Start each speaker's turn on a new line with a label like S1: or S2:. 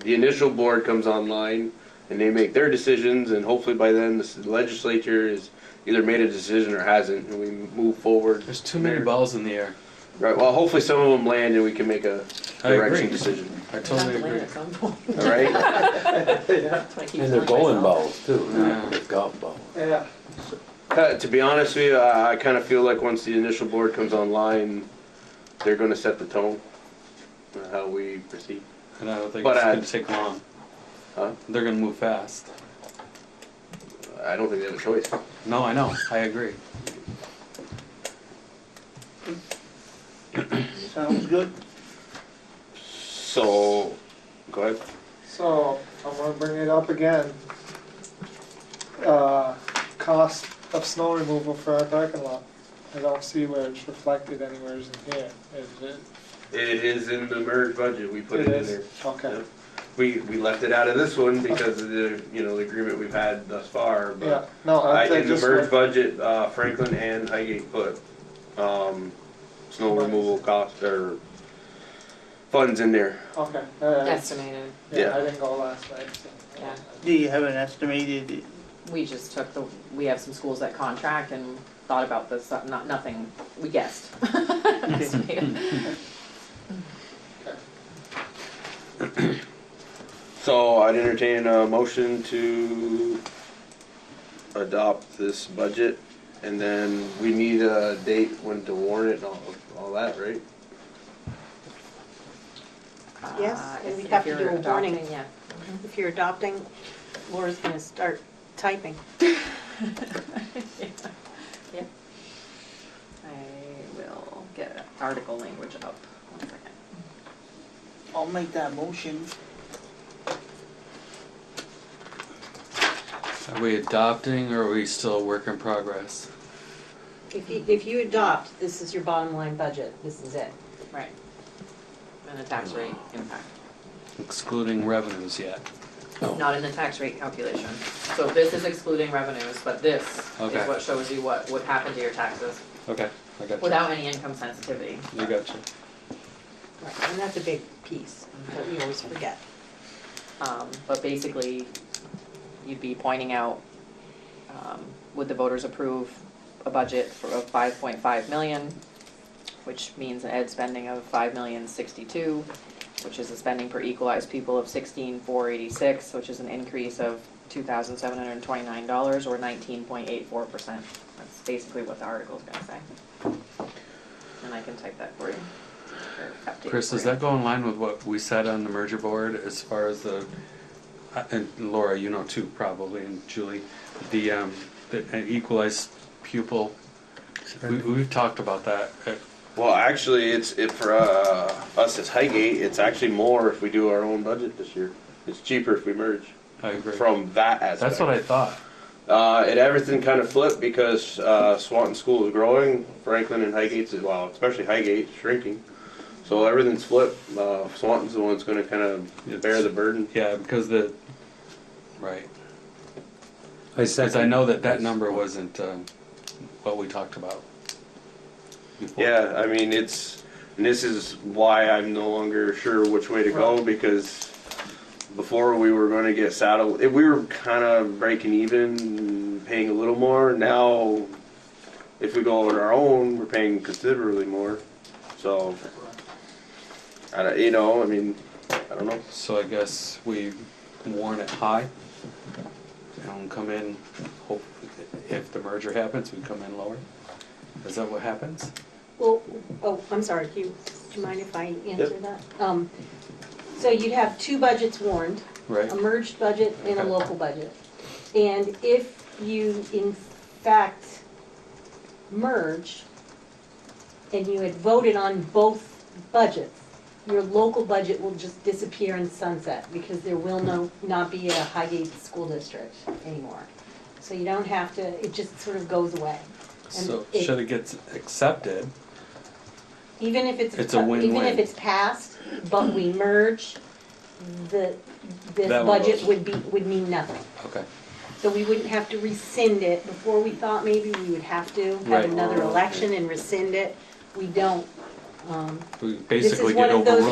S1: the initial board comes online and they make their decisions and hopefully by then the legislature is either made a decision or hasn't and we move forward.
S2: There's too many
S1: There.
S2: balls in the air.
S1: Right, well, hopefully some of them land and we can make a
S2: I agree.
S1: direction decision,
S2: I
S3: Have to
S2: totally
S3: land
S2: agree.
S3: at some point.
S1: all right?
S3: That's what I keep
S4: And they're
S3: telling
S4: bowling balls
S3: myself.
S4: too, not just golf balls.
S5: Yeah,
S1: Uh, To be honest with you, I, I kinda feel like once the initial board comes online, they're gonna set the tone on how we proceed.
S2: And I don't think
S1: But,
S2: it's
S1: uh,
S2: gonna take long.
S1: Huh?
S2: They're gonna move fast.
S1: I don't think they have a choice.
S2: No, I know. I agree.
S5: sounds good.
S1: So, go ahead.
S5: So, I'm gonna bring it up again. Uh, cost of snow removal for our parking lot. I don't see where it's reflected anywhere in here, is it?
S1: It is in the merge budget, we put
S5: It
S1: it in
S5: is?
S1: there.
S5: Okay,
S1: Yep. We, we left it out of this one because of the, you know, the agreement we've had thus far,
S5: yeah,
S1: but.
S5: no,
S1: I,
S5: I I
S1: in the
S5: just.
S1: merge budget, uh, Franklin and Highgate put, um, snow removal cost or funds in there.
S5: Okay, alright,
S3: Estimated,
S5: yeah, I
S1: yeah.
S5: didn't go last night, so.
S3: yeah.
S6: Do you have an estimated,
S3: We just took the, we have some schools that contract and thought about this, uh, not, nothing, we guessed. Estimated.
S1: So I'd entertain a motion to adopt this budget and then we need a date when to warn it and all, all that, right?
S7: Yes,
S3: Uh,
S7: and
S3: if-
S7: we'd
S3: if
S7: have to
S3: you're
S7: do a warning.
S3: adopting, Yeah.
S7: If you're adopting, Laura's gonna start typing.
S3: Yeah. I will get article language up, one second.
S6: I'll make that motion.
S2: Are we adopting or are we still a work in progress?
S7: If you, if you adopt, this is your bottom line budget, this is it.
S3: Right. And the tax rate impact,
S2: Excluding revenues yet.
S3: not in the tax rate calculation. So this is excluding revenues, but this
S2: Okay.
S3: is what shows you what would happen to your taxes
S2: Okay, I got you.
S3: without any income sensitivity.
S2: I got you.
S7: Right, And that's a big piece that we always forget.
S3: Um, but basically, you'd be pointing out, um, would the voters approve a budget for, of five point five million, which means an ed spending of five million sixty-two, which is a spending per equalized people of sixteen four eighty-six, which is an increase of two thousand seven hundred and twenty-nine dollars or nineteen point eight four percent. That's basically what the article's gonna say. And I can type that for you. or update it
S2: Chris,
S3: for
S2: does
S3: you.
S2: that go in line with what we said on the merger board as far as the, uh, and Laura, you know too probably, and Julie, the, um, the uh, equalized pupil? We, we've talked about that. Uh,
S1: Well, actually, it's, it, for, uh, us as Highgate, it's actually more if we do our own budget this year. It's cheaper if we merge
S2: I agree.
S1: from that aspect.
S2: That's what I thought.
S1: Uh, and everything kind of flipped because, uh, Swanton School is growing, Franklin and Highgate's, well, especially Highgate's shrinking. So everything's flipped, uh, Swanton's the one that's gonna kind of bear the burden.
S2: Yeah, because the, right.
S4: I
S2: Because I know that that number wasn't um, what we talked about. before.
S1: Yeah, I mean, it's, and this is why I'm no longer sure which way to go, because before we were gonna get saddled, if we were kinda breaking even, paying a little more, now if we go on our own, we're paying considerably more, so. I don't, you know, I mean, I don't know,
S2: So I guess we warn it high and come in, hope, if the merger happens, we come in lower. Is that what happens?
S7: Well, oh, I'm sorry, do you, do you mind if I answer
S1: Yep.
S7: that? Um, So you'd have two budgets warned,
S2: Right?
S7: a merged budget and a
S2: Okay.
S7: local budget. And if you in fact merge and you had voted on both budgets, your local budget will just disappear in sunset because there will no, not be a Highgate School District anymore. So you don't have to, it just sort of goes away.
S2: So
S7: it-
S2: should it get accepted,
S7: Even if it's,
S2: It's a
S7: even
S2: win-win.
S7: if it's passed, but we merge, the, this
S2: That one
S7: budget
S2: goes.
S7: would be, would mean nothing.
S2: okay,
S7: So we wouldn't have to rescind it. Before, we thought maybe we would have to
S2: Right.
S7: have another election and rescind it. We don't. Um,
S2: we
S7: This
S2: basically
S7: is
S2: get
S7: one of those
S2: overruled.